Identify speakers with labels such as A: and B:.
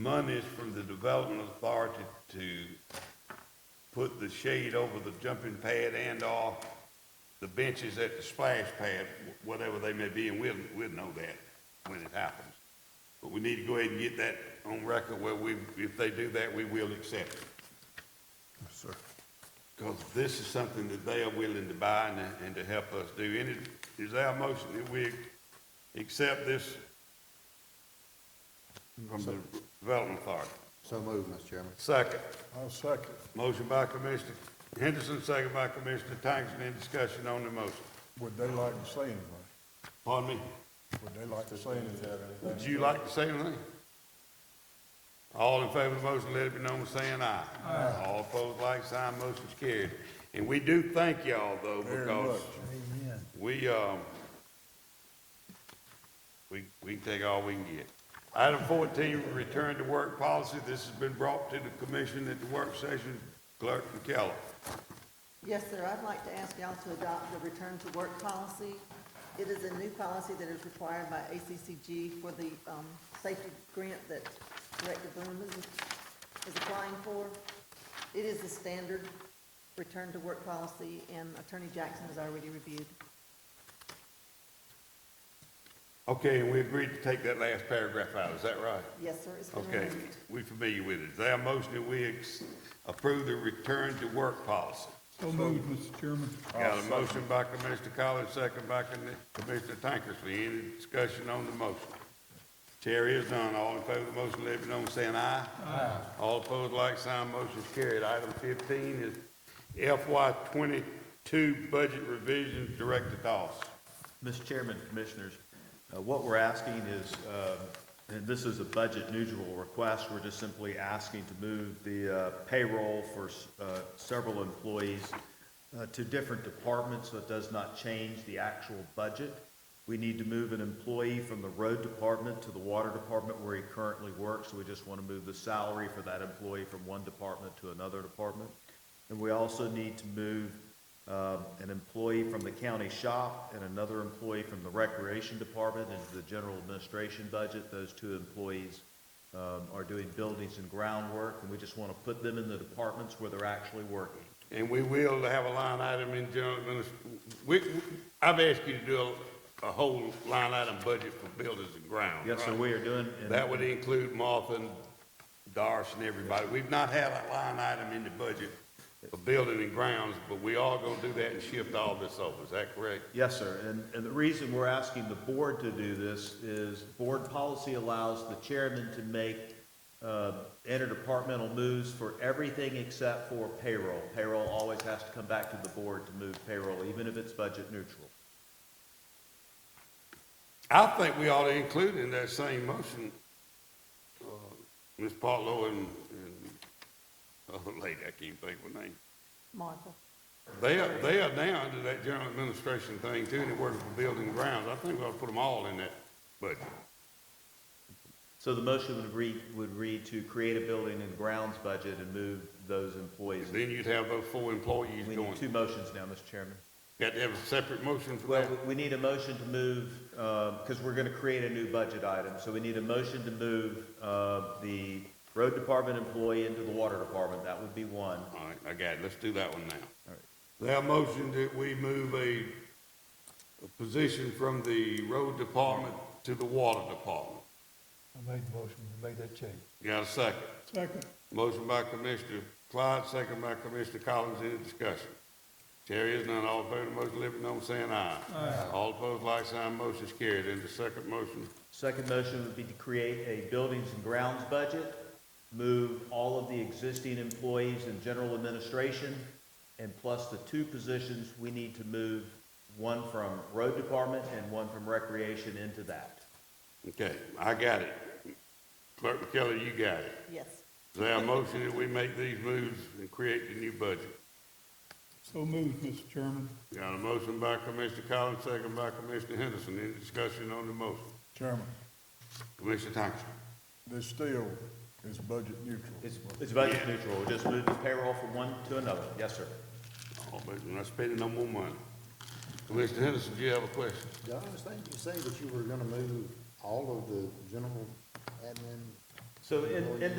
A: monies from the Development Authority to put the shade over the jumping pad and/or the benches at the splash pad, whatever they may be, and we'll, we'll know that when it happens. But we need to go ahead and get that on record where we, if they do that, we will accept it.
B: Sir.
A: Because this is something that they are willing to buy and, and to help us do. And it- is our motion that we accept this from the Development Authority?
B: So moved, Mr. Chairman.
A: Second.
B: I'll second.
A: Motion by Commissioner Henderson, second by Commissioner Tankersley. Any discussion on the motion?
C: Would they like to say anything?
A: Pardon me?
C: Would they like to say anything?
A: Would you like to say anything? All in favor of the motion, let it be known by saying aye. Aye. All opposed, like sign, motion's carried. And we do thank y'all though,
C: Very
A: because
C: much.
A: we, um, we, we take all we can get. Item fourteen, return to work policy. This has been brought to the commission at the work session. Clerk McKellar.
D: Yes, sir, I'd like to ask y'all to adopt the return to work policy. It is a new policy that is required by ACCG for the um, safety grant that Director Boom is is applying for. It is the standard return to work policy, and Attorney Jackson has already reviewed.
A: Okay, and we agreed to take that last paragraph out. Is that right?
D: Yes, sir, it's been
A: Okay,
D: reviewed.
A: we familiar with it. Is there a motion that we ex- approve the return to work policy?
E: So moved, Mr. Chairman.
A: Got a motion by Commissioner Collins, second by Con- Commissioner Tankersley. Any discussion on the motion? Chair is none. All in favor of the motion, let it be known by saying aye. Aye. All opposed, like sign, motion is carried. Item fifteen is FY twenty-two budget revisions, Director Dawson.
F: Mr. Chairman, Commissioners, uh, what we're asking is, um, and this is a budget neutral request, we're just simply asking to move the uh, payroll for s- uh, several employees uh, to different departments, so it does not change the actual budget. We need to move an employee from the road department to the water department where he currently works, so we just want to move the salary for that employee from one department to another department. And we also need to move um, an employee from the county shop and another employee from the recreation department into the general administration budget. Those two employees um, are doing buildings and groundwork, and we just want to put them in the departments where they're actually working.
A: And we will have a line item in general administr, we, I've asked you to do a, a whole line item budget for buildings and grounds.
F: Yes, sir,
A: right?
F: we are doing. and-
A: That would include Martha and Doris and everybody. We've not had a line item in the budget for building and grounds, but we are gonna do that and shift all this over, is that correct?
F: Yes, sir. And, and the reason we're asking the board to do this is board policy allows the chairman to make uh, interdepartmental moves for everything except for payroll. Payroll always has to come back to the board to move payroll, even if it's budget neutral.
A: I think we ought to include in that same motion, uh, Ms. Partlow and, and, oh, lady, I can't think of her name.
D: Martha,
A: They are, they are now under that general administration thing too, and they're working for building and grounds. I think we ought to put them all in that budget.
F: So the motion would read, would read to create a building and grounds budget and move those employees.
A: Then you'd have those four employees
F: We
A: going.
F: need two motions now, Mr. Chairman.
A: Got to have a separate motion for
F: Well,
A: that?
F: we we need a motion to move, because we're going to create a new budget item. So we need a motion to move uh, the road department employee into the water department. That would be one.
A: All right, I got it. Let's do that one now.
F: All right.
A: There are motion that we move a, a position from the road department to the water department.
C: I made the motion, we made that change.
A: Got a second?
E: Second.
A: Motion by Commissioner Clyde, second by Commissioner Collins. Any discussion? Chair is none. All in favor of the motion, let it be known by saying aye. Aye. All opposed, like sign. Motion's carried. And the second motion,
F: Second motion would be to create a buildings and grounds budget, move all of the existing employees in general administration, and plus the two positions, we need to move one from road department and one from recreation into that.
A: okay, I got it. Clerk McKellar, you got it.
D: yes.
A: Is there a motion that we make these moves and create the new budget?
E: So moved, Mr. Chairman.
A: Got a motion by Commissioner Collins, second by Commissioner Henderson. Any discussion on the motion?
C: Chairman,
A: Commissioner Thompson?
C: this still is budget neutral.
F: It's, it's budget
A: Yeah.
F: neutral, We'll just move the payroll from one to another. Yes, sir.
A: Oh, but we're not spending no more money. Commissioner Henderson, do you have a question?
B: Did I understand you say that you were gonna move all of the general admin
F: So in, in